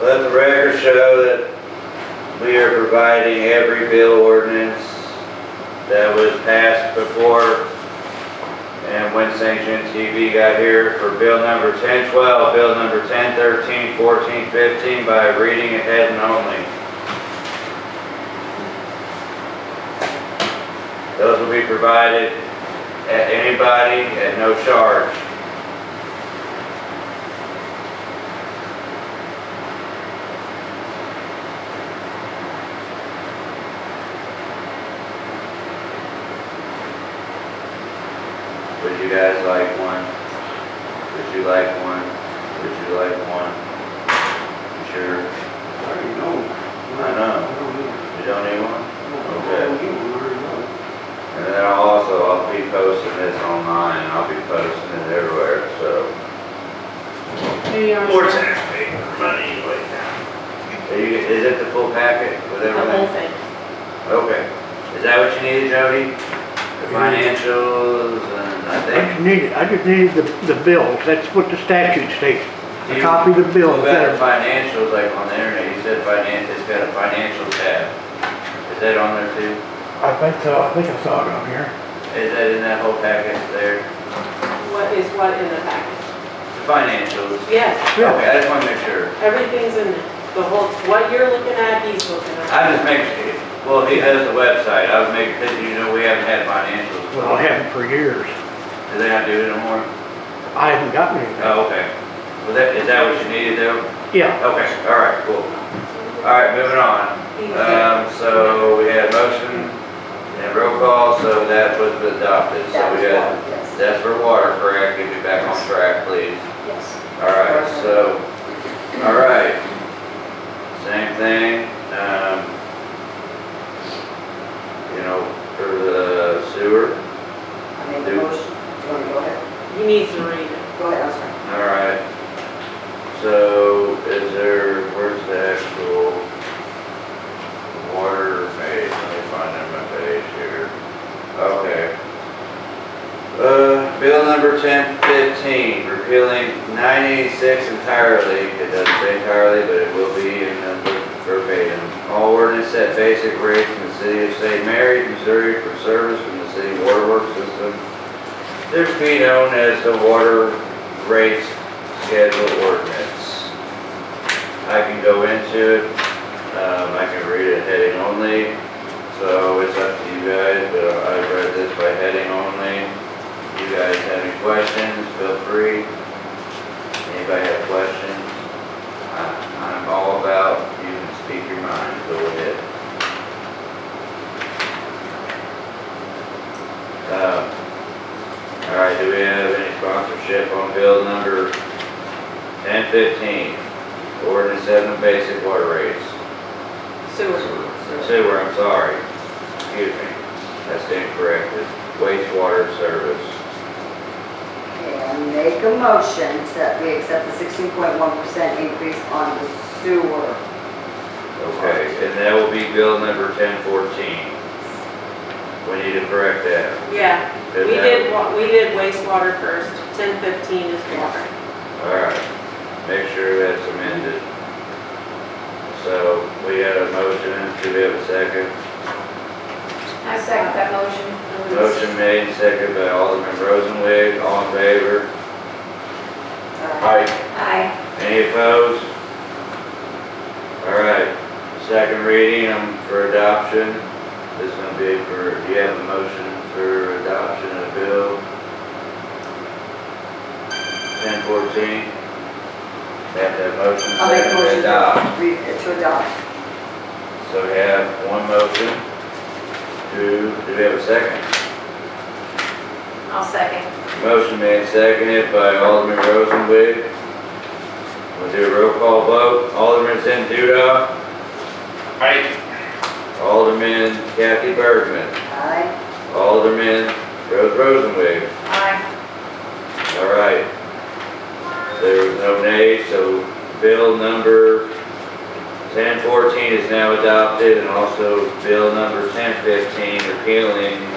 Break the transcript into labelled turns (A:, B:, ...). A: Let the record show that we are providing every bill ordinance that was passed before. And when St. John TV got here for bill number 1012, bill number 1013, 14, 15 by reading ahead and only. Those will be provided at anybody at no charge. Would you guys like one? Would you like one? Would you like one? You Sure,
B: already know.
A: I know. You don't need one? Okay.
B: Okay.
A: And then I'll also, I'll be posting this online, I'll be posting it everywhere, so.
C: They are
A: More
C: the
A: taxpayer money like that. Are you, is it the full packet with
C: whole
A: everything?
C: thing.
A: Okay. Is that what you needed, Jody? The financials and I
D: I just
A: think.
D: needed, I just needed the, the bills, that's what the statute states.
A: Do
D: A
A: you-
D: copy of the bill,
A: Well,
D: is
A: better
D: that-
A: financials, like on the internet, you said finance, it's got a financial tab. Is that on there too?
D: I think so, I think I saw it on here.
A: Is that in that whole package there?
C: What is what in the package?
A: The financials?
C: Yes,
D: Yeah.
A: Okay, I just wanna make sure.
C: everything's in there. The whole, what you're looking at, he's looking at.
A: I just make, well, he has the website, I was making, because you know, we haven't had financials.
D: Well, I haven't for years,
A: Do they not do it anymore?
D: I haven't gotten anything.
A: Oh, okay. Was that, is that what you needed though?
D: Yeah,
A: Okay, all right, cool. All right, moving on. Um, so we had motion and roll call, so that was adopted, so we got,
C: Yes,
A: that's for water, correct? Get me back on track, please.
C: yes.
A: All right, so, all right. Same thing, um, you know, for the sewer,
E: I made the motion. Do you want to go ahead?
C: He needs to read it.
E: Go ahead, I'm sorry.
A: all right. So is there, where's the actual water page? Let me find it on my page here. Okay. Uh, bill number ten fifteen, repealing nine eighty-six entirely. It doesn't say entirely, but it will be in number verbatim. All ordinance at basic rates in the city of St. Mary's, Missouri for service from the city waterworks system. This be known as the water rates schedule ordinance. I can go into it, um, I can read it heading only. So it's up to you guys, but I read this by heading only. You guys have any questions, feel free. Anybody have questions? I- I'm all about you can speak your mind, go ahead. Um, All right, do we have any sponsorship on bill number 1015? Ordinance seven basic water rates.
C: Sewer.
A: Sewer, I'm sorry. Excuse me. That's incorrect. It's Wastewater service.
E: Okay, I make a motion that we accept the sixteen point one percent increase on the sewer.
A: Okay, and that will be bill number 1014. We need to correct that.
C: Yeah, we
A: Is that-
C: did, wa- we did wastewater first, ten fifteen is water.
A: All right, make sure that's amended. So we had a motion. Do we have a second?
F: I second that motion.
A: Motion made, second by Alderman Rosenwig. All in favor?
E: Uh,
A: Aye.
F: Aye.
A: Any opposed? All right, second reading um, for adoption. This is gonna be for, do you have a motion for adoption of bill? Ten fourteen? Have that motion
E: I'll make a
A: second to
E: motion
A: adopt.
E: to read it to adopt.
A: So we have one motion. Two, do we have a second?
F: I'll second.
A: Motion made seconded by Alderman Rosenwood. We'll do a roll call vote. Alderman Zenduda. Aye. Alderman Kathy Bergman.
E: Aye.
A: Alderman Rose Rosenwood.
F: Aye.
A: All right. There was no nay, so bill number 1014 is now adopted and also bill number 1015 repealing